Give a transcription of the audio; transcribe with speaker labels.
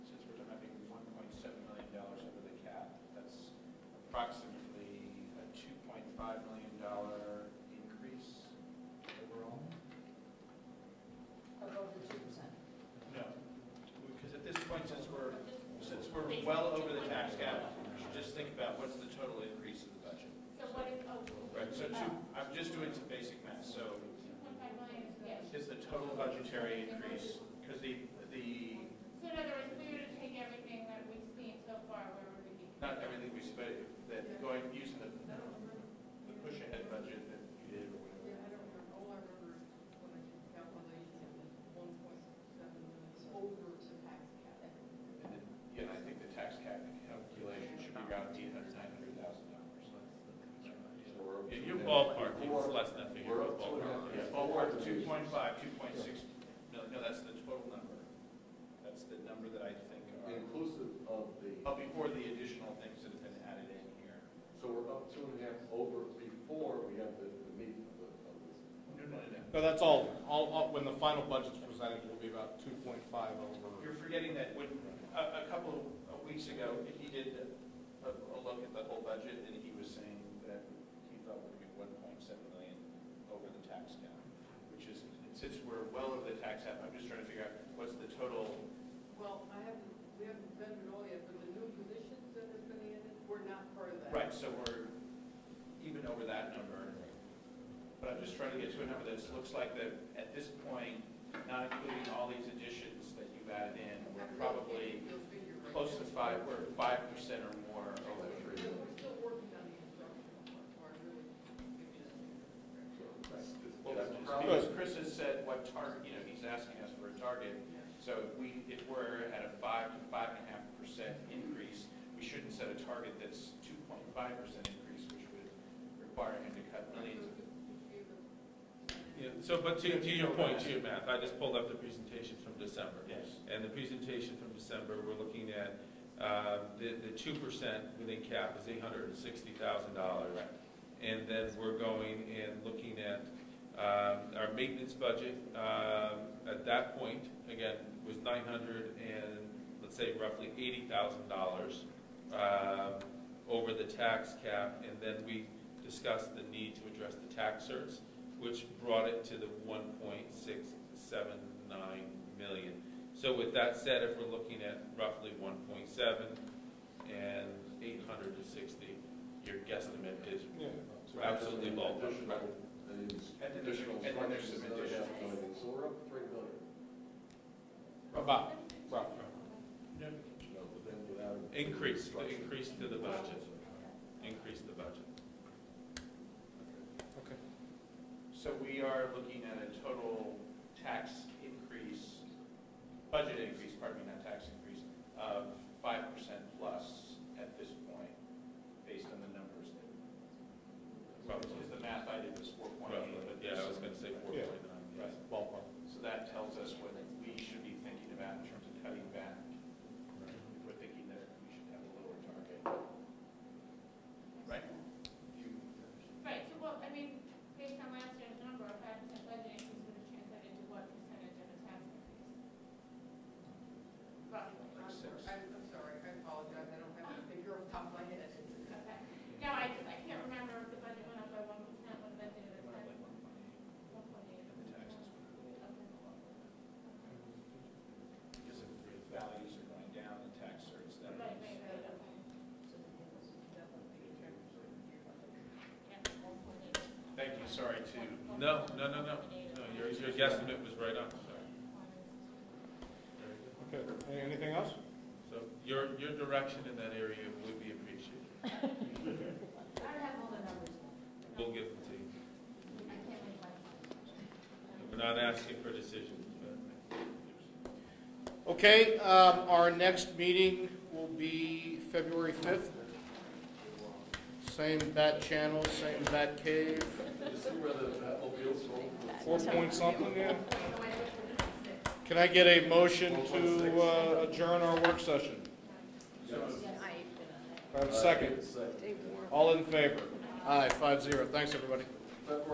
Speaker 1: is
Speaker 2: well
Speaker 1: the
Speaker 2: over the
Speaker 1: 2.1.
Speaker 2: tax cap, you should just think about what's the total increase in the budget.
Speaker 1: So what is, oh,
Speaker 2: Right, so two, I'm just doing some basic math, so
Speaker 1: two point five million, yes.
Speaker 2: is the total budgetary increase, because the, the,
Speaker 1: So in other words, if we were to take everything that we've seen so far, where would we be?
Speaker 2: not everything we spent, that going, using the, the push ahead budget that you did or
Speaker 3: Yeah,
Speaker 2: whatever.
Speaker 3: I don't remember, all I remember is when I did the calculations, it was one point seven million over the tax cap.
Speaker 2: And then, yeah, and I think the tax cap calculation should be around eight hundred, nine hundred thousand dollars.
Speaker 4: Yeah, Your ballpark, it's less than that figure,
Speaker 5: We're up
Speaker 4: but
Speaker 5: two and a half.
Speaker 4: ballpark.
Speaker 2: Yeah, ballpark, two point five, two point six, no, no, that's the total number. That's the number that I think are,
Speaker 5: Inclusive of the,
Speaker 2: oh, before the additional things that have been added in here.
Speaker 5: so we're up two and a half over before we have the, the meeting of the, of this.
Speaker 2: No, no, no,
Speaker 6: No, that's all, all, all- when the final budget's presented, it'll be about two point five
Speaker 2: no.
Speaker 6: over.
Speaker 2: You're forgetting that when, a, a couple of weeks ago, he did a, a look at the whole budget and he was saying that he thought we're gonna be one point seven million over the tax cap, which is, since we're well over the tax cap, I'm just trying to figure out what's the total
Speaker 3: Well, I haven't, we haven't done it all yet, but the new positions that have been added, we're not part of that.
Speaker 2: Right, so we're even over that number. But I'm just trying to get to a number that looks like that at this point, not including all these additions that you've added in, we're probably close to five, we're five percent or more
Speaker 5: Oh,
Speaker 2: over
Speaker 3: We're
Speaker 2: three.
Speaker 3: still working on the instructional part, so I really can't give you that.
Speaker 2: Well, that's because Chris has said what target, you know, he's asking us for a target. So if we, if we're at a five to five and a half percent increase, we shouldn't set a target that's two point five percent increase, which would require him to cut millions of
Speaker 4: Yeah, So, but to, to your point, to your math, I just pulled up the presentation from December.
Speaker 2: Yes.
Speaker 4: And the presentation from December, we're looking at, uh, the, the two percent within cap is eight hundred and sixty thousand dollars. And then we're going and looking at, um, our maintenance budget, um, at that point, again, was nine hundred and, let's say roughly eighty thousand dollars, um, over the tax cap, and then we discussed the need to address the tax certs, which brought it to the one point six seven nine million. So with that said, if we're looking at roughly one point seven and eight hundred and sixty, your guesstimate is
Speaker 6: Yeah.
Speaker 4: absolutely low.
Speaker 5: Additional, and additional
Speaker 2: And then there's
Speaker 5: structures
Speaker 2: some
Speaker 5: that they
Speaker 2: additional-
Speaker 5: have going in. so we're up three million.
Speaker 6: About, roughly.
Speaker 5: you know, but then without.
Speaker 4: Increase, increase to the budget, increase the budget.
Speaker 6: Okay.
Speaker 2: So we are looking at a total tax increase, budget increase, pardon me, not tax increase, of five percent plus at this point, based on the numbers that, well, because the math I did was four point
Speaker 4: Roughly,
Speaker 2: eight, but
Speaker 4: yeah,
Speaker 2: this.
Speaker 4: I was gonna say four point nine.
Speaker 2: Right.
Speaker 6: Ballpark.
Speaker 2: So that tells us what we should be thinking about in terms of cutting back. If we're thinking that we should have a lower target. Right? You-
Speaker 1: Right, so well, I mean, based on last year's number, a five percent budget increase would have translated to what percentage of a tax increase? Roughly.
Speaker 3: I'm sorry, I'm I'm sorry, I apologize, I don't have a figure off the top of my head.
Speaker 1: Okay. No, I just, I can't remember if the budget went up by one percent when the budget was
Speaker 2: Like 1.8,
Speaker 1: ten. One point eight.
Speaker 2: and the taxes were a little
Speaker 1: Okay.
Speaker 2: Because if the values are going down, the tax rates, that
Speaker 1: Right, right,
Speaker 2: means.
Speaker 1: right, okay. Yeah, one point eight.
Speaker 2: Thank you, sorry to,
Speaker 4: No, no, no, no, no, your, your guesstimate was right on, sorry. Very good.
Speaker 6: Okay, Any- anything else?
Speaker 4: So your, your direction in that area would be appreciated.
Speaker 7: I don't have all the numbers.
Speaker 4: We'll give them to you.
Speaker 7: I can't make my.
Speaker 4: We're not asking for decisions, but
Speaker 6: Okay, um, our next meeting will be February fifth. Same bat channel, same bat cave,
Speaker 5: You see where the uh, opioids roll?
Speaker 6: four point something, yeah? Can I get a motion to uh, adjourn our work session? Can I have a second?
Speaker 5: Second. Uh,
Speaker 6: All in favor? Aye, five zero. Thanks, everybody.
Speaker 5: February